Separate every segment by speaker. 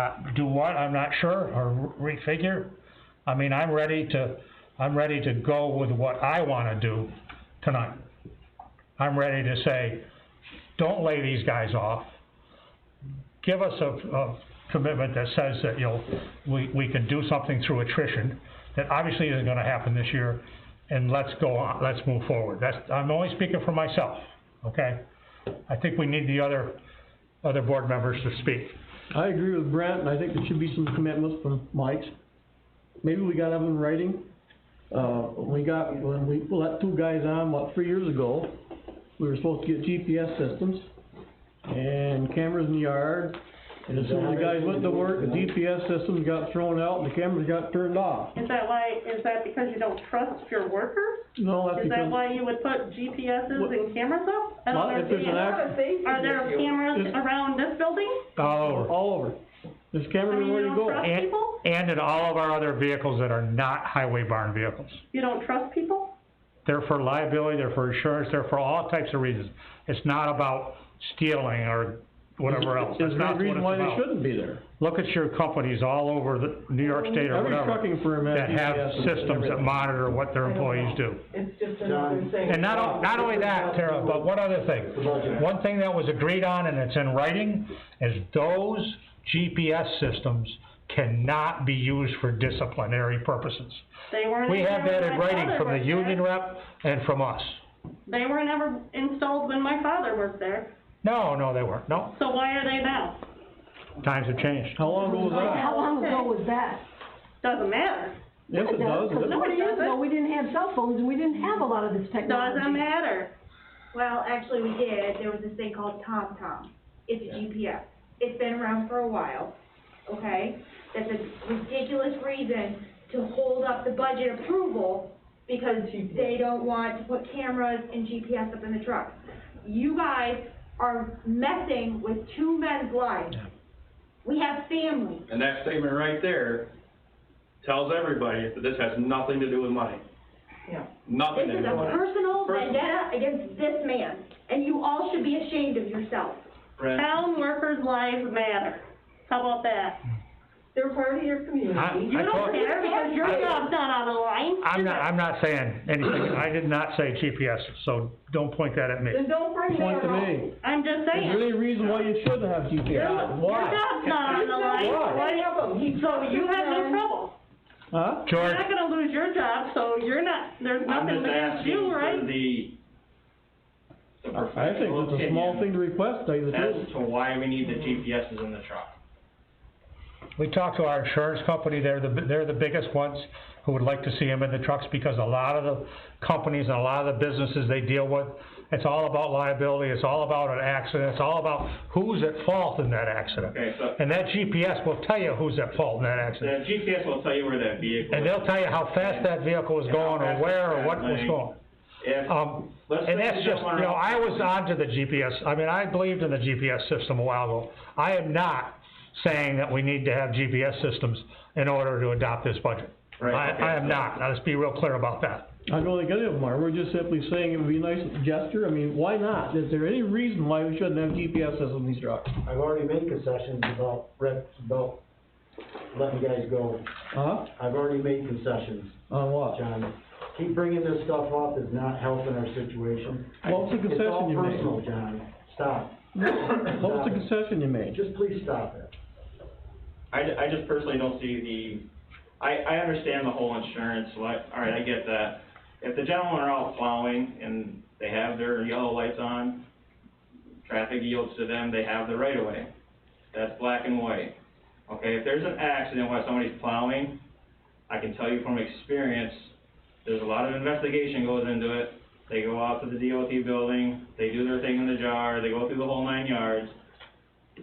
Speaker 1: Uh, do what, I'm not sure, or refigure. I mean, I'm ready to, I'm ready to go with what I wanna do tonight. I'm ready to say, don't lay these guys off. Give us a, a commitment that says that you'll, we, we can do something through attrition, that obviously isn't gonna happen this year, and let's go on, let's move forward. That's, I'm only speaking for myself, okay? I think we need the other, other board members to speak.
Speaker 2: I agree with Brent, and I think there should be some commitments from Mike's. Maybe we gotta have them in writing. Uh, we got, when we let two guys on, what, three years ago, we were supposed to get GPS systems and cameras in the yard. And as soon as the guys went to work, the GPS systems got thrown out and the cameras got turned off.
Speaker 3: Is that why, is that because you don't trust your workers?
Speaker 2: No, that's
Speaker 3: Is that
Speaker 2: because,
Speaker 3: why you would put GPSs and cameras up? I don't
Speaker 2: Well, if there's an act-
Speaker 3: understand. Are there cameras around this building?
Speaker 1: All over.
Speaker 2: all over. There's
Speaker 3: I
Speaker 2: cameras
Speaker 3: mean, you
Speaker 2: everywhere you
Speaker 3: don't
Speaker 2: go.
Speaker 3: trust
Speaker 1: And,
Speaker 3: people?
Speaker 1: and in all of our other vehicles that are not highway barn vehicles.
Speaker 3: You don't trust people?
Speaker 1: They're for liability, they're for insurance, they're for all types of reasons. It's not about stealing or whatever else.
Speaker 2: There's
Speaker 1: That's
Speaker 2: no
Speaker 1: not what it's
Speaker 2: reason why they
Speaker 1: about.
Speaker 2: shouldn't be there.
Speaker 1: Look at your companies all over the, New York State or
Speaker 2: Every
Speaker 1: whatever,
Speaker 2: trucking firm has
Speaker 1: that have
Speaker 2: GPS and
Speaker 1: systems that
Speaker 2: everything.
Speaker 1: monitor what their employees do.
Speaker 4: It's just another thing.
Speaker 1: And not, o- not only that, Tara, but one other thing. One thing that was agreed on, and it's in writing, is those GPS systems cannot be used for disciplinary purposes.
Speaker 3: They weren't.
Speaker 1: We have that in
Speaker 3: installed when my
Speaker 1: writing
Speaker 3: father
Speaker 1: from the
Speaker 3: worked
Speaker 1: union
Speaker 3: there.
Speaker 1: rep and from us.
Speaker 3: They were never installed when my father worked there,
Speaker 1: No, no, they weren't. No,
Speaker 3: so why are they now?
Speaker 1: times have changed.
Speaker 2: How long ago was that?
Speaker 5: How long ago was that?
Speaker 3: Doesn't matter.
Speaker 2: Yes, it does. It-
Speaker 5: Forty years ago, we didn't have cell phones, and we didn't have a lot of this
Speaker 3: Doesn't
Speaker 5: technology.
Speaker 3: matter.
Speaker 6: Well, actually, we did, there was this thing called TomTom, it's a GPS, it's been around for a while, okay? That's a ridiculous reason to hold up the budget approval, because they don't want to put cameras and GPS up in the truck. You guys are messing with two men's lives. We have families,
Speaker 7: And that statement right there tells everybody that this has nothing to do with money.
Speaker 4: Yeah.
Speaker 7: Nothing
Speaker 6: this
Speaker 7: to
Speaker 6: is
Speaker 7: do
Speaker 6: a
Speaker 7: with it.
Speaker 6: personal
Speaker 7: Personal.
Speaker 6: vendetta against this man, and you all should be ashamed of yourself.
Speaker 7: Brent,
Speaker 3: Town workers' lives matter. How about that?
Speaker 4: They're part of your
Speaker 1: I,
Speaker 4: community.
Speaker 1: I
Speaker 3: You don't
Speaker 1: told,
Speaker 3: care because your job's not on the line.
Speaker 1: I'm
Speaker 3: is
Speaker 1: not,
Speaker 3: it?
Speaker 1: I'm not saying anything. I did not say GPS, so don't point that at me.
Speaker 4: Then don't bring that
Speaker 2: Point
Speaker 4: up.
Speaker 2: to me.
Speaker 3: I'm just
Speaker 2: Is there
Speaker 3: saying.
Speaker 2: any reason why you shouldn't have GPS?
Speaker 3: Your
Speaker 2: Why?
Speaker 3: job's not on the line,
Speaker 2: Why?
Speaker 4: Bring up 'em. He-
Speaker 3: so you have no trouble.
Speaker 2: Huh?
Speaker 1: George,
Speaker 3: You're not gonna lose your job, so you're not, there's
Speaker 7: I'm
Speaker 3: nothing
Speaker 7: just
Speaker 3: against
Speaker 7: asking
Speaker 3: you,
Speaker 7: for
Speaker 3: right?
Speaker 7: the, the
Speaker 2: I think
Speaker 7: professional
Speaker 2: it's a small thing
Speaker 7: opinion
Speaker 2: to request, tell you the truth.
Speaker 7: as to why we need the GPSs in the truck.
Speaker 1: we talked to our insurance company. They're the, they're the biggest ones who would like to see them in the trucks because a lot of the companies and a lot of the businesses they deal with, it's all about liability. It's all about an accident. It's all about who's at fault in that accident.
Speaker 7: Okay, so-
Speaker 1: And that GPS will tell you who's at fault in that
Speaker 7: The
Speaker 1: accident.
Speaker 7: GPS will tell you where that vehicle is.
Speaker 1: And they'll tell you how fast that vehicle was
Speaker 7: Yeah, how
Speaker 1: going, or
Speaker 7: fast
Speaker 1: where, or
Speaker 7: it's
Speaker 1: what was
Speaker 7: traveling.
Speaker 1: going.
Speaker 7: If-
Speaker 1: Um,
Speaker 7: Let's
Speaker 1: and
Speaker 7: say
Speaker 1: that's
Speaker 7: you
Speaker 1: just,
Speaker 7: don't wanna-
Speaker 1: you know, I was onto the GPS, I mean, I believed in the GPS system a while ago. I am not saying that we need to have GPS systems in order to adopt this budget.
Speaker 7: Right, okay,
Speaker 1: I, I am
Speaker 7: so-
Speaker 1: not, let's be real clear about that.
Speaker 2: I don't think any of them are, we're just simply saying it would be a nice gesture, I mean, why not? Is there any reason why we shouldn't have GPS systems in these trucks?
Speaker 8: I've already made concessions about, rep- about letting guys go.
Speaker 2: Huh?
Speaker 8: I've already made concessions,
Speaker 2: On what?
Speaker 8: John. Keep bringing this stuff up is not helping our situation.
Speaker 2: What was the
Speaker 8: It's all
Speaker 2: concession you made?
Speaker 8: personal, John. Stop.
Speaker 2: What was the
Speaker 8: Stop it.
Speaker 2: concession you made?
Speaker 8: Just please stop it.
Speaker 7: I, ju- I just personally don't see the, I, I understand the whole insurance, like, all right, I get that. If the gentlemen are out plowing and they have their yellow lights on, traffic yields to them, they have the right of way. That's black and white. Okay, if there's an accident while somebody's plowing, I can tell you from experience, there's a lot of investigation goes into it. They go out to the DOT building, they do their thing in the jar, they go through the whole nine yards.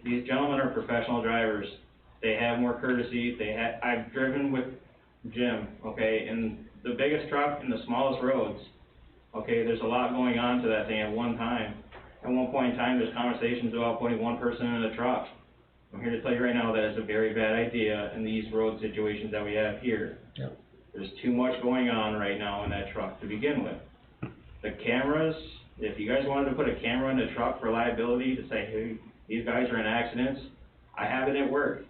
Speaker 7: These gentlemen are professional drivers they have more courtesy, they ha- I've driven with Jim, okay, in the biggest truck and the smallest roads. Okay, there's a lot going on to that thing at one time. At one point in time, there's conversations about putting one person in a truck. I'm here to tell you right now that it's a very bad idea in these road situations that we have here. There's too much going on right now in that truck to begin with. The cameras, if you guys wanted to put a camera in the truck for liability to say, hey, these guys are in accidents, I have it at work.